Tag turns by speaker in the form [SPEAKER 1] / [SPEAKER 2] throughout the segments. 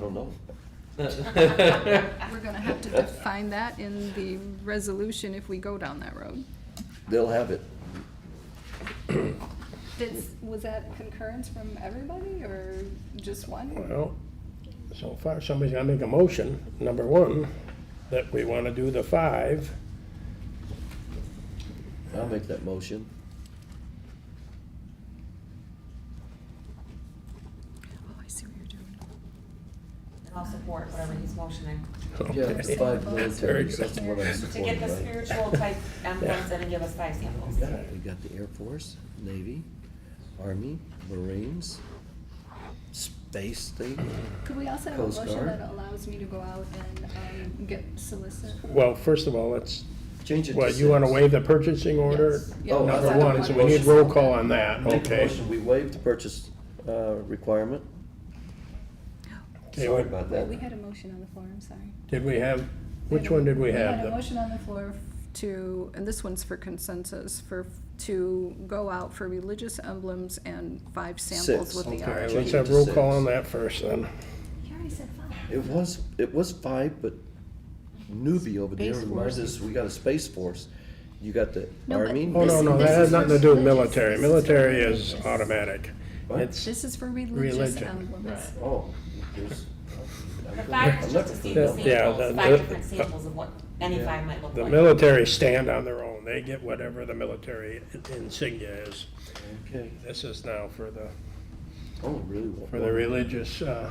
[SPEAKER 1] don't know.
[SPEAKER 2] We're gonna have to define that in the resolution if we go down that road.
[SPEAKER 1] They'll have it.
[SPEAKER 2] was that concurrence from everybody or just one?
[SPEAKER 3] Well, so far, somebody's gotta make a motion, number one, that we wanna do the five.
[SPEAKER 1] I'll make that motion.
[SPEAKER 2] Oh, I see what you're doing.
[SPEAKER 4] And I'll support whatever he's motioning,
[SPEAKER 1] Yeah, the five
[SPEAKER 2] Okay.
[SPEAKER 1] militaries,
[SPEAKER 3] Very
[SPEAKER 1] that's the one I'm
[SPEAKER 4] to get
[SPEAKER 1] supporting,
[SPEAKER 4] the
[SPEAKER 1] right?
[SPEAKER 4] spiritual type emblems in and give us five samples.
[SPEAKER 1] Yeah, We got the Air Force, Navy, Army, Marines, space thing.
[SPEAKER 2] Could we also have a
[SPEAKER 1] Coast
[SPEAKER 2] motion
[SPEAKER 1] Guard.
[SPEAKER 2] that allows me to go out and, um, get solicit?
[SPEAKER 3] Well, first of all, let's,
[SPEAKER 1] Change it to
[SPEAKER 3] well, you wanna
[SPEAKER 1] six.
[SPEAKER 3] waive the purchasing order?
[SPEAKER 2] Yes. Yeah,
[SPEAKER 1] Oh, I
[SPEAKER 3] Number
[SPEAKER 1] thought
[SPEAKER 3] one,
[SPEAKER 1] that
[SPEAKER 3] so
[SPEAKER 1] was
[SPEAKER 3] we need
[SPEAKER 1] motion.
[SPEAKER 3] roll call on that,
[SPEAKER 1] Make a
[SPEAKER 3] okay?
[SPEAKER 1] motion, we waive the purchase uh, requirement.
[SPEAKER 3] Okay,
[SPEAKER 1] Sorry
[SPEAKER 3] wait.
[SPEAKER 1] about
[SPEAKER 2] Wait, we
[SPEAKER 1] that.
[SPEAKER 2] had a motion on the floor, I'm sorry.
[SPEAKER 3] Did we have,
[SPEAKER 2] We
[SPEAKER 3] which
[SPEAKER 2] had a-
[SPEAKER 3] one did we
[SPEAKER 2] We
[SPEAKER 3] have?
[SPEAKER 2] had a
[SPEAKER 3] The-
[SPEAKER 2] motion on the floor f- to, and this one's for consensus, for, to go out for religious emblems and five samples
[SPEAKER 1] Six.
[SPEAKER 2] with the
[SPEAKER 1] Okay.
[SPEAKER 3] All right,
[SPEAKER 2] orange.
[SPEAKER 3] let's
[SPEAKER 1] Change it
[SPEAKER 3] have
[SPEAKER 1] to
[SPEAKER 3] roll call
[SPEAKER 1] six.
[SPEAKER 3] on that first then.
[SPEAKER 2] You already said five.
[SPEAKER 1] It was, it was five, but newbie over there
[SPEAKER 5] Space
[SPEAKER 1] reminds
[SPEAKER 5] Force.
[SPEAKER 1] us, we got a Space Force. You got the
[SPEAKER 2] No, but
[SPEAKER 1] Army.
[SPEAKER 3] Oh, no,
[SPEAKER 2] This-
[SPEAKER 3] no,
[SPEAKER 2] this
[SPEAKER 3] that has
[SPEAKER 2] is
[SPEAKER 3] nothing
[SPEAKER 2] for
[SPEAKER 3] to do with
[SPEAKER 2] religious. This
[SPEAKER 3] military.
[SPEAKER 2] is for
[SPEAKER 3] Military is
[SPEAKER 2] religious.
[SPEAKER 3] automatic.
[SPEAKER 1] What?
[SPEAKER 3] It's,
[SPEAKER 2] This is for religious
[SPEAKER 3] Religion.
[SPEAKER 2] emblems.
[SPEAKER 1] Oh, there's.
[SPEAKER 4] The five is just to see the
[SPEAKER 3] Yeah, yeah,
[SPEAKER 4] samples,
[SPEAKER 3] the-
[SPEAKER 4] five
[SPEAKER 3] the-
[SPEAKER 4] different samples of what any five might look
[SPEAKER 3] The
[SPEAKER 4] like.
[SPEAKER 3] military stand on their own. They get whatever the military insignia is.
[SPEAKER 1] Okay,
[SPEAKER 3] This is now for the,
[SPEAKER 1] oh, really? well,
[SPEAKER 3] for the religious, uh,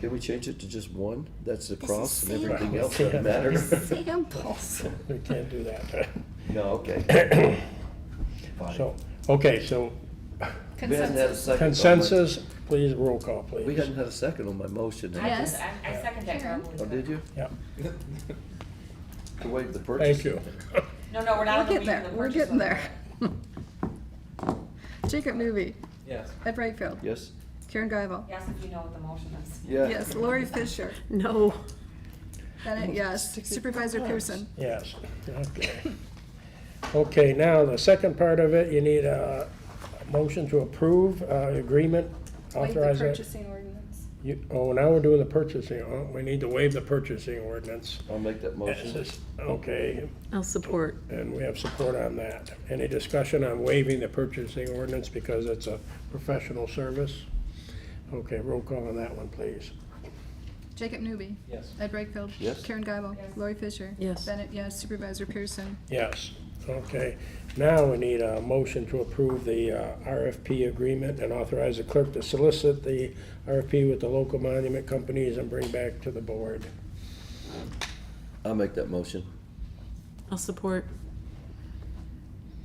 [SPEAKER 1] Can we change it to just one? That's the
[SPEAKER 2] is
[SPEAKER 1] cross and
[SPEAKER 2] same.
[SPEAKER 1] everything else doesn't
[SPEAKER 3] Right.
[SPEAKER 1] matter?
[SPEAKER 2] Samples.
[SPEAKER 3] we can't do that.
[SPEAKER 1] No, okay.
[SPEAKER 3] So,
[SPEAKER 1] Fine.
[SPEAKER 3] okay, so
[SPEAKER 1] We hadn't had a
[SPEAKER 2] Consensus.
[SPEAKER 1] second on my-
[SPEAKER 3] consensus, please, roll call, please.
[SPEAKER 1] We hadn't had a second on my motion.
[SPEAKER 4] I-
[SPEAKER 2] Yes.
[SPEAKER 4] I, I second that,
[SPEAKER 2] Karen.
[SPEAKER 4] totally.
[SPEAKER 1] Oh, did you?
[SPEAKER 3] Yeah,
[SPEAKER 1] To waive the purchase?
[SPEAKER 3] thank you.
[SPEAKER 4] No, no, we're not
[SPEAKER 2] We're
[SPEAKER 4] on the
[SPEAKER 2] getting
[SPEAKER 4] meeting of the
[SPEAKER 2] there, we're
[SPEAKER 4] purchase
[SPEAKER 2] getting
[SPEAKER 4] order.
[SPEAKER 2] there. Jacob Newby,
[SPEAKER 6] Yes.
[SPEAKER 2] Ed Brightfield,
[SPEAKER 1] Yes?
[SPEAKER 2] Karen Guyval.
[SPEAKER 4] Yes, if you know what the motion is.
[SPEAKER 1] Yeah.
[SPEAKER 2] Yes, Lori Fisher,
[SPEAKER 5] No.
[SPEAKER 2] Bennett, yes, Supervisor Pearson.
[SPEAKER 3] Yes, okay. Okay, now, the second part of it, you need a motion to approve, uh, agreement,
[SPEAKER 2] Waive the
[SPEAKER 3] authorize it.
[SPEAKER 2] purchasing ordinance.
[SPEAKER 3] You- Oh, now we're doing the purchasing. Oh, We need to waive the purchasing ordinance.
[SPEAKER 1] I'll make that
[SPEAKER 3] This
[SPEAKER 1] motion.
[SPEAKER 3] is- Okay,
[SPEAKER 5] I'll support.
[SPEAKER 3] and we have support on that. Any discussion on waiving the purchasing ordinance because it's a professional service? Okay, roll call on that one, please.
[SPEAKER 2] Jacob Newby,
[SPEAKER 6] Yes.
[SPEAKER 2] Ed Brightfield.
[SPEAKER 1] Yes.
[SPEAKER 2] Karen Guyval, Lori Fisher.
[SPEAKER 5] Yes.
[SPEAKER 2] Bennett, yes, Supervisor Pearson.
[SPEAKER 3] Yes, okay. Now we need a motion to approve the uh, RFP agreement and authorize the clerk to solicit the RFP with the local monument companies and bring back to the board.
[SPEAKER 1] I'll make that motion.
[SPEAKER 5] I'll support.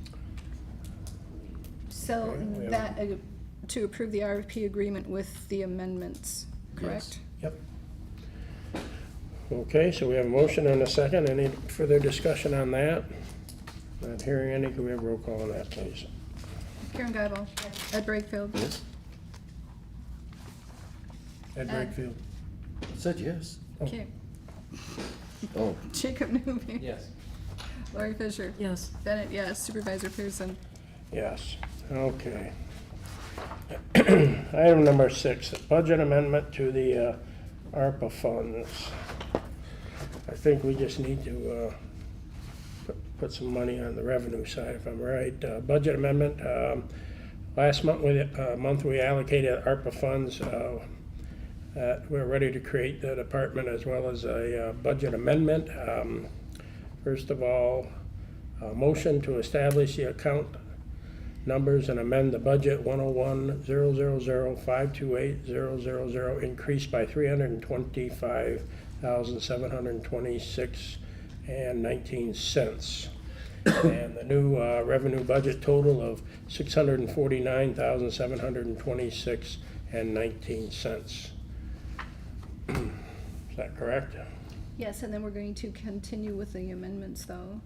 [SPEAKER 2] So
[SPEAKER 3] Okay, we have-
[SPEAKER 2] that, uh, to approve the RFP agreement with the amendments, correct?
[SPEAKER 3] Yep. Okay, so we have a motion and a second. Any further discussion on that? Not hearing any. Can we have roll call on that, please?
[SPEAKER 2] Karen Guyval, Ed Brightfield.
[SPEAKER 1] Yes?
[SPEAKER 3] Ed
[SPEAKER 2] Uh,
[SPEAKER 3] Wakefield.
[SPEAKER 1] I Said yes.
[SPEAKER 2] Okay,
[SPEAKER 1] Oh,
[SPEAKER 2] Jacob Newby.
[SPEAKER 6] Yes.
[SPEAKER 2] Lori Fisher.
[SPEAKER 5] Yes.
[SPEAKER 2] Bennett, yes, Supervisor Pearson.
[SPEAKER 3] Yes, okay. Item number six, budget amendment to the uh, ARPA funds. I think we just need to uh, pu- put some money on the revenue side, if I'm right. Uh, Budget amendment, um, last month, we, uh, month we allocated ARPA funds. uh, uh, We're ready to create the department as well as a uh, budget amendment. Um, First of all, a motion to establish the account numbers and amend the budget one oh one zero zero zero five two eight zero zero zero, increased by three hundred and twenty-five thousand seven hundred and twenty-six and nineteen cents. And the new uh, revenue budget total of six hundred and forty-nine thousand seven hundred and twenty-six and nineteen cents. Is that correct?
[SPEAKER 2] Yes, and then we're going to continue with the amendments, though.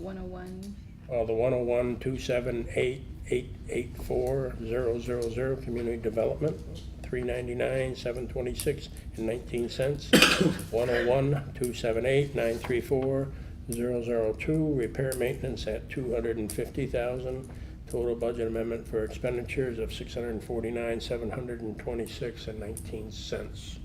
[SPEAKER 2] 101,
[SPEAKER 3] Well, the one oh one two seven eight eight eight four zero zero zero, community development, three ninety-nine, seven twenty-six and nineteen cents. One oh one two seven eight nine three four zero zero two, repair maintenance at two hundred and fifty thousand. Total budget amendment for expenditures of six hundred and forty-nine, seven hundred and twenty-six and nineteen cents.